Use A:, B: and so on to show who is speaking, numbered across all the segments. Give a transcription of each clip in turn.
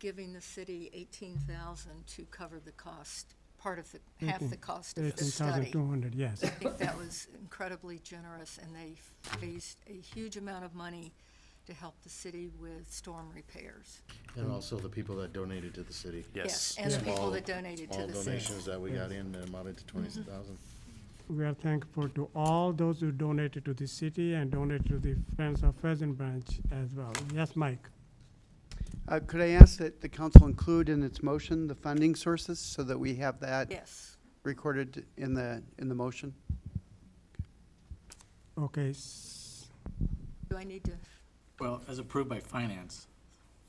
A: giving the city eighteen thousand to cover the cost, part of the, half the cost of the
B: Eighteen thousand
A: study.
B: two hundred, yes.
A: I think that was incredibly generous, and they raised a huge amount of money to help the city with storm repairs.
C: And also the people that donated to the city.
A: Yes, And the people
C: Small-
A: that donated to the
C: Small
A: city.
C: donations that we got in that amounted to twenty thousand.
B: We are thankful to all those who donated to the city and donated to the Friends of Pheasant Branch as well. Yes, Mike?
D: Uh, Could I ask that the council include in its motion the funding sources so that we have that
A: Yes,
D: recorded in the, in the motion?
B: Okay, s-
A: do I need to,
E: Well, as approved by finance,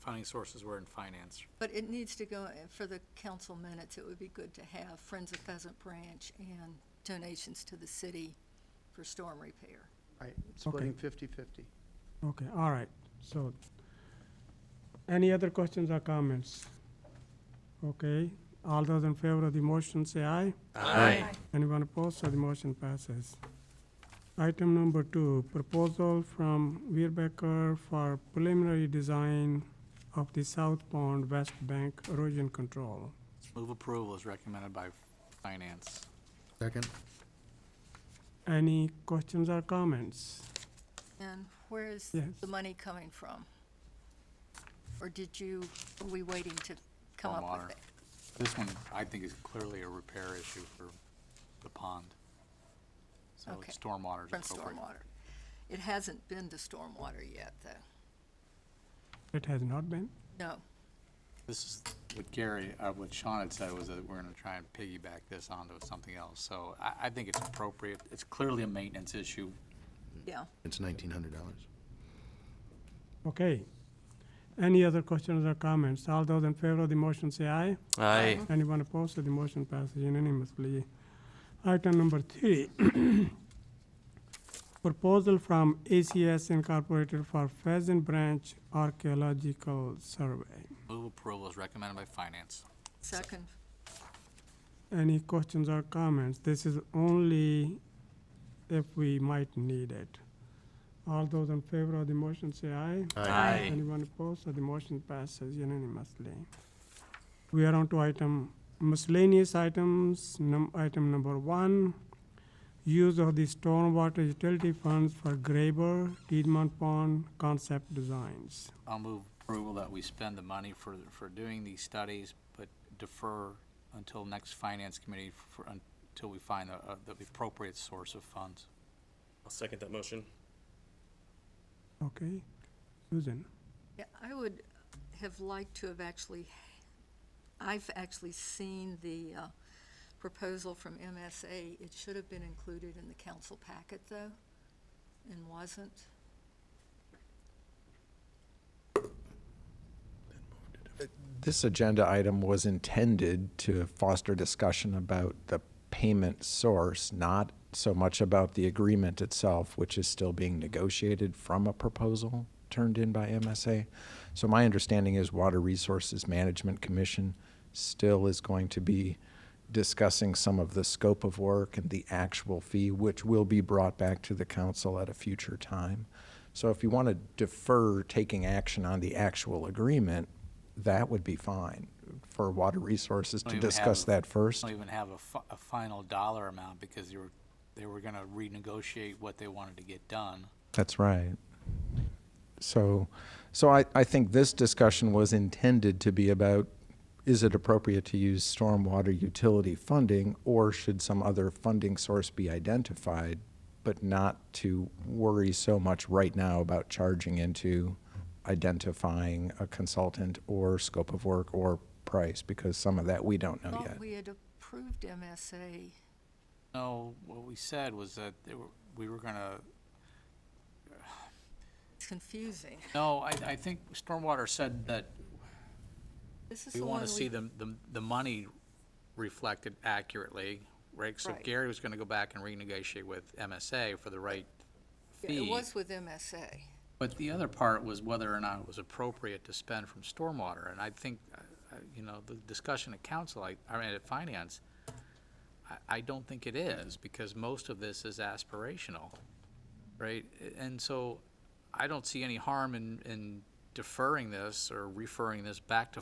E: funding sources were in finance.
A: but it needs to go, uh, for the council minutes, it would be good to have Friends of Pheasant Branch and donations to the city for storm repair.
D: Right, splitting 50/50.
B: okay, all right, so, any other questions or comments? Okay, all those in favor of the motion, say aye.
E: Aye.
B: Anyone opposed, so the motion passes. Item number two, proposal from Weerbecker for preliminary design of the South Pond West Bank erosion control.
E: Move approval is recommended by finance.
C: Second?
B: Any questions or comments?
A: And where is
B: Yes.
A: the money coming from? Or did you, are we waiting to come up
E: Stormwater.
A: with it?
E: This one, I think, is clearly a repair issue for the pond. So
A: Okay.
E: stormwater is
A: From
E: appropriate.
A: stormwater. It hasn't been to stormwater yet, though.
B: It has not been?
A: No,
E: Hmm. This is what Gary, uh, what Sean had said was that we're gonna try and piggyback this onto something else. So I, I think it's appropriate. It's clearly a maintenance issue.
A: yeah.
C: It's nineteen hundred dollars.
B: Okay. Any other questions or comments? All those in favor of the motion say aye.
F: Aye.
B: Anyone opposed, so the motion passes unanimously. Item number three, proposal from ACS Incorporated for Pheasant Branch Archaeological Survey.
E: Move approval is recommended by finance.
A: Second,
B: Any questions or comments? This is only if we might need it. All those in favor of the motion say aye.
F: Aye.
B: Anyone opposed? So the motion passes unanimously. We are on to item miscellaneous items, num, item number one. Use of the stormwater utility funds for Graber, Piedmont Pond concept designs.
E: I'll move approval that we spend the money for, for doing these studies, but defer until next finance committee for, until we find a- a- the appropriate source of funds.
F: I'll second that motion.
B: Okay? Susan?
A: yeah, I would have liked to have actually, I've actually seen the uh, proposal from MSA. It should have been included in the council packet, though, and wasn't.
G: This agenda item was intended to foster discussion about the payment source, not so much about the agreement itself, which is still being negotiated from a proposal turned in by MSA. So my understanding is Water Resources Management Commission still is going to be discussing some of the scope of work and the actual fee, which will be brought back to the council at a future time. So if you want to defer taking action on the actual agreement, that would be fine for Water Resources
E: Don't
G: to
E: even have
G: discuss
E: a-
G: that first.
E: Don't even have a fi- a final dollar amount because they were, they were gonna renegotiate what they wanted to get done.
G: That's right. So, so I, I think this discussion was intended to be about, is it appropriate to use stormwater utility funding? Or should some other funding source be identified? But not to worry so much right now about charging into identifying a consultant or scope of work or price, because some of that we
E: Oh,
G: don't know yet.
A: Thought we had approved MSA.
E: No, what we said was that they were, we were gonna,
A: It's confusing.
E: no, I, I think Stormwater said that
A: This is
E: We
A: the
E: want
A: one
E: to see
A: we,
E: the, the, the money reflected accurately, right? So
A: Right.
E: Gary was going to go back and renegotiate with MSA for the right
A: it
E: fee.
A: was with MSA.
E: But the other part was whether or not it was appropriate to spend from stormwater. And I think, uh, uh, you know, the discussion at council, I, I mean, at finance, I, I don't think it is because most of this is aspirational, right? And so I don't see any harm in, in deferring this or referring this back to